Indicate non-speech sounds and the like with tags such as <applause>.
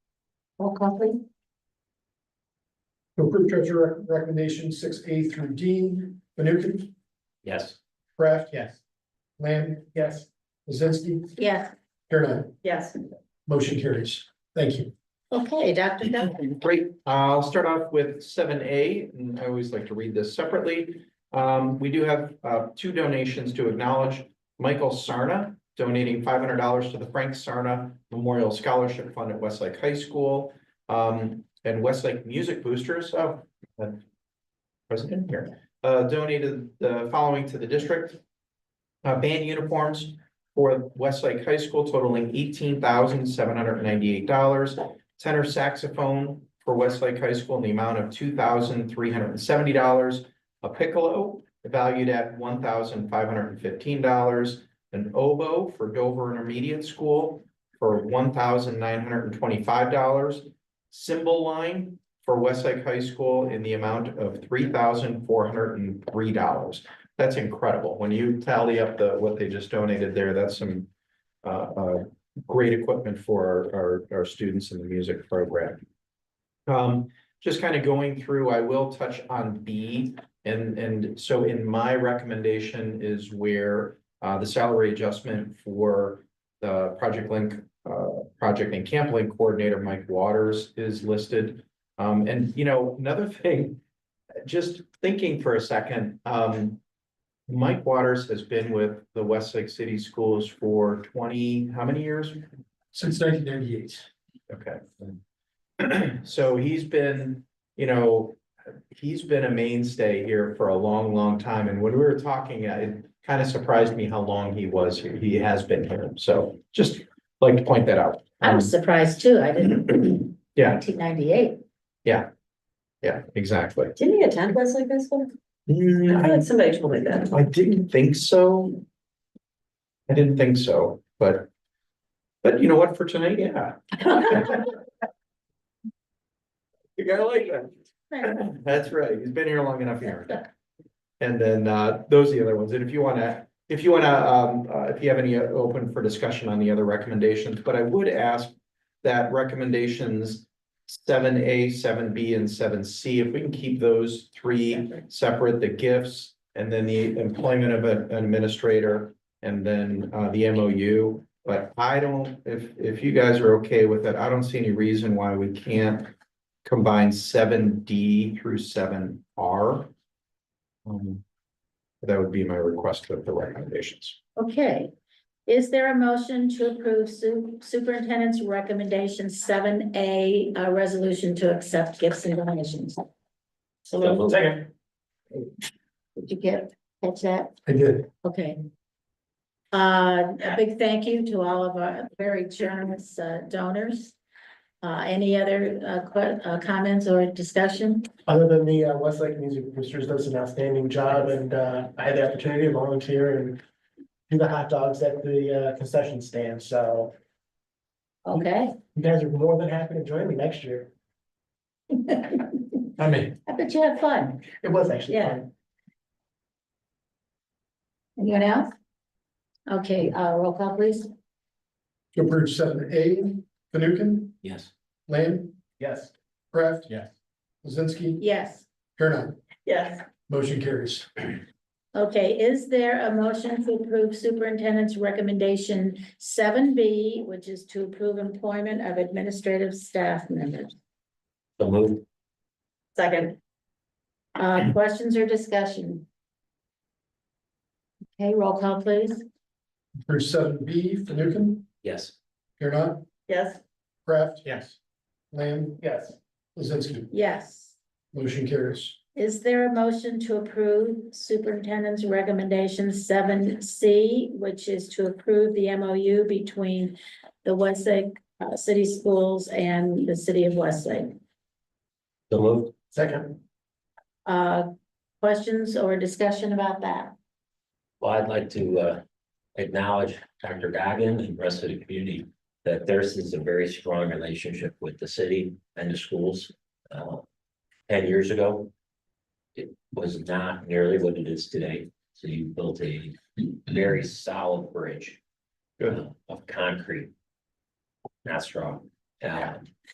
Roll call please. To approve treasurer rec- recommendation six A through D, Fanukin, Yes. Kraft, Yes. Lamb. Yes. Lizinski, Yes. here none, Yes. motion carries. Thank you. Okay, Dr. Duncan. Great, Uh, I'll start off with seven A, and I always like to read this separately. Um, we do have, uh, two donations to acknowledge. Michael Sarna donating five hundred dollars to the Frank Sarna Memorial Scholarship Fund at Westlake High School. Um, and Westlake Music Boosters, oh. uh, President here, uh, donated the following to the district. Uh, band uniforms for Westlake High School totaling eighteen thousand seven hundred ninety-eight dollars tenor saxophone for Westlake High School in the amount of two thousand three hundred and seventy dollars. A piccolo valued at one thousand five hundred and fifteen dollars. An oboe for Dover Intermediate School for one thousand nine hundred and twenty-five dollars. Symbol line for Westlake High School in the amount of three thousand four hundred and three dollars. That's incredible. When you tally up the, what they just donated there, that's some uh, uh, great equipment for our, our, our students in the music program. Um, just kind of going through, I will touch on B, and, and so in my recommendation is where uh, the salary adjustment for the Project Link, uh, Project and Camp Link Coordinator, Mike Waters, is listed. Um, and, you know, another thing, just thinking for a second, um, Mike Waters has been with the Westlake City Schools for twenty, how many years? Since nineteen ninety-eight. Okay. So he's been, you know, he's been a mainstay here for a long, long time, and when we were talking, uh, it kind of surprised me how long he was here, he has been here, so just like to point that out. I was surprised too. I didn't. Yeah. Nineteen ninety-eight. Yeah, exactly. Didn't he attend Westlake High School? I I thought somebody told me that. Mm, didn't think so. I didn't think so, but, but you know what, for tonight, yeah. <laughs> You gotta like that. That's right, he's been here long enough here. And then, uh, those are the other ones, and if you wanna, if you wanna, um, uh, if you have any uh, open for discussion on the other recommendations, but I would ask. That recommendations seven A, seven B, and seven C, if we can keep those three separate, the gifts. And then the employment of an administrator, and then, uh, the MOU. But I don't, if, if you guys are okay with it, I don't see any reason why we can't combine seven D through seven R. Um, That would be my request of the recommendations. <laughs> Okay. Is there a motion to approve su- superintendent's recommendation seven A, a resolution to accept gifts and donations? So Second. did you get, catch that? I did. Okay. Uh, a big thank you to all of our very generous uh, donors. Uh, any other uh, que- uh, comments or discussion? Other than the uh, Westlake Music Boosters does an outstanding job and uh, I had the opportunity to volunteer and do the hot dogs at the uh, concession stand, so Okay. you guys are more than happy to join me next <laughs> year. I I mean. bet you had fun. It was actually Yeah. fun. Anyone else? Okay, uh, roll call please. To approve seven A, Fanukin, Yes. Lamb, Yes. Kraft. Yes. Lizinski, Yes. here none, Yes. motion carries. Okay, is there a motion to approve superintendent's recommendation seven B, which is to approve employment of administrative staff members? The move. Second. Uh, questions or discussion? Okay, roll call please. Approve seven B, Fanukin, Yes. here none, Yes. Kraft, Yes. Lamb, Yes. Lizinski, Yes. motion carries. Is there a motion to approve superintendent's recommendation seven C, which is to approve the MOU between the Westlake uh, City Schools and the City of Westlake? The move. Second, Uh, questions or discussion about that? Well, I'd like to uh, acknowledge Dr. Goggin and the rest of the community that theirs is a very strong relationship with the city and the schools. Uh, Ten years ago, it was not nearly what it is today. So you built a very solid bridge Good. uh, of concrete, not straw. Um,